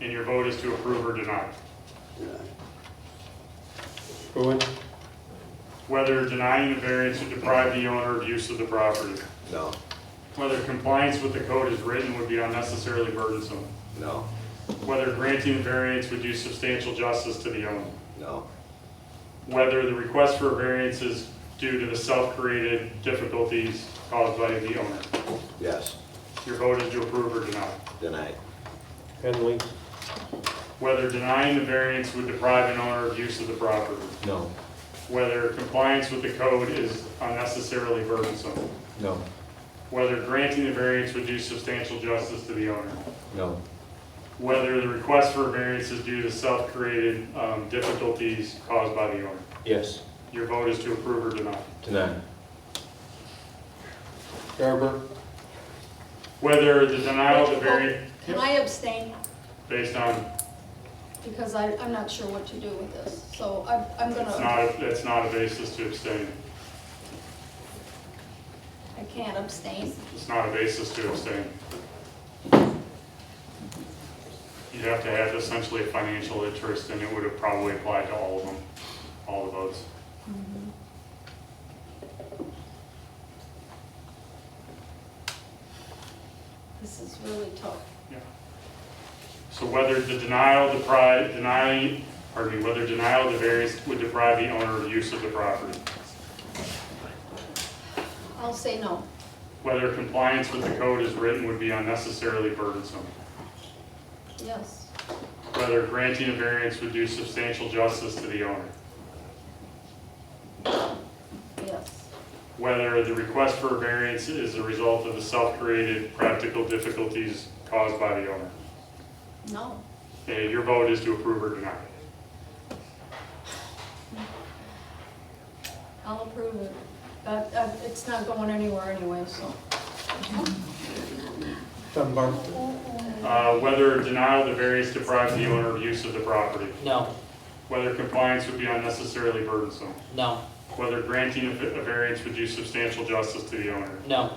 and your vote is to approve or deny. Going? Whether denying the variance would deprive the owner of use of the property. No, Whether compliance with the code as written would be unnecessarily burdensome. no, Whether granting the variance would do substantial justice to the owner. no, Whether the request for a variance is due to the self-created difficulties caused by the owner. yes, Your vote is to approve or deny. denied. Henley? Whether denying the variance would deprive an owner of use of the property. No. Whether compliance with the code is unnecessarily burdensome. No. Whether granting the variance would do substantial justice to the owner. No. Whether the request for a variance is due to self-created um, difficulties caused by the owner. Yes. Your vote is to approve or deny. Denied. Garber? Whether the denial of the variance, Can I abstain? based on, Because I, I'm not sure what to do with this, so I'm, I'm it's gonna, not, it's not a basis to abstain. I can't abstain. It's not a basis to abstain. You'd have to have essentially a financial interest, and it would have probably applied to all of them, all the votes. This is really tough. So whether the denial deprive, denying, pardon me, whether denial of the variance would deprive the owner of use of the property, I'll say no. whether compliance with the code as written would be unnecessarily burdensome, Yes, whether granting a variance would do substantial justice to the owner, yes, whether the request for a variance is a result of the self-created practical difficulties caused by the owner. no. Okay, your vote is to approve or deny. I'll approve it. But uh, it's not going anywhere anyway, so. Dunbar? Uh, Whether denial of the variance deprives the owner of use of the property, No, whether compliance would be unnecessarily burdensome, no, whether granting a a variance would do substantial justice to the owner, no,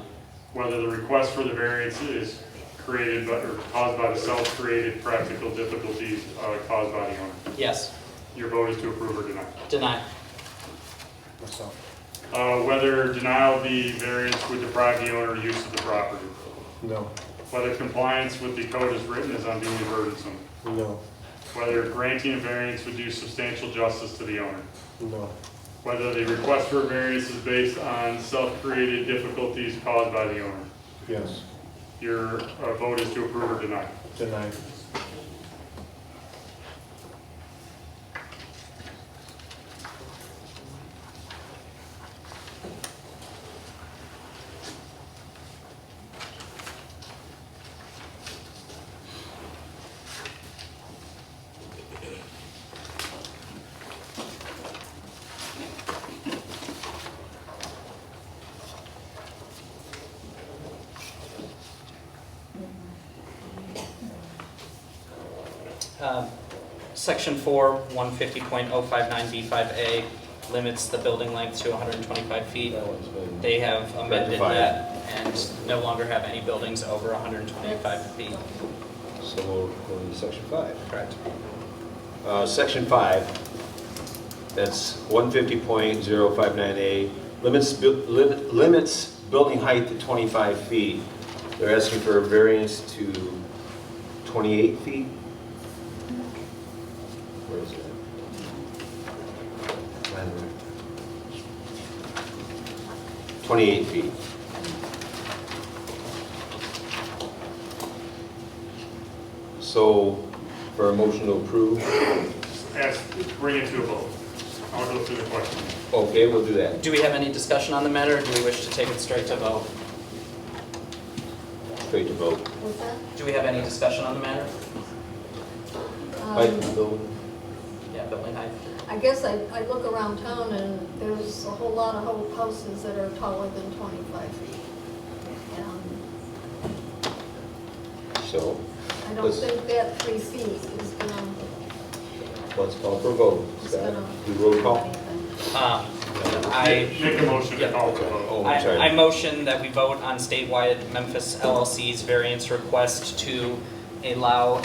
whether the request for the variance is created by, or caused by the self-created practical difficulties uh, caused by the owner. yes, Your vote is to approve or deny. deny, Myself. Uh, Whether denial of the variance would deprive the owner of use of the property, No. whether compliance with the code as written is unduly burdensome, No. whether granting a variance would do substantial justice to the owner, No. whether the request for a variance is based on self-created difficulties caused by the owner. Yes. Your uh, vote is to approve or deny. Denied. Um, Section 4, 150.059B5A limits the building length to 125 feet. They have amended Rectified. that and no longer have any buildings over 125 feet. So we'll go to section five. Correct. Uh, Section 5, that's 150.059A, limits, bu- lim- limits building height to 25 feet. They're asking for a variance to 28 feet? Where is that? Mine there. 28 feet. So, for a motion to approve? Ask, bring it to a vote. I'll go through the question. Okay, we'll do that. Do we have any discussion on the matter, or do we wish to take it straight to vote? Straight to vote. What's that? Do we have any discussion on the matter? Height Um, and building? Yeah, building height. I guess I, I look around town and there's a whole lot of ho- houses that are taller than 25 feet. And So, I don't Let's- think that three feet is gonna, let's call for a vote. is Scott, gonna Do do roll call? anything. Um, I Make a motion to call for a vote. Oh, I'm sorry. I, I motion that we vote on statewide Memphis LLC's variance request to allow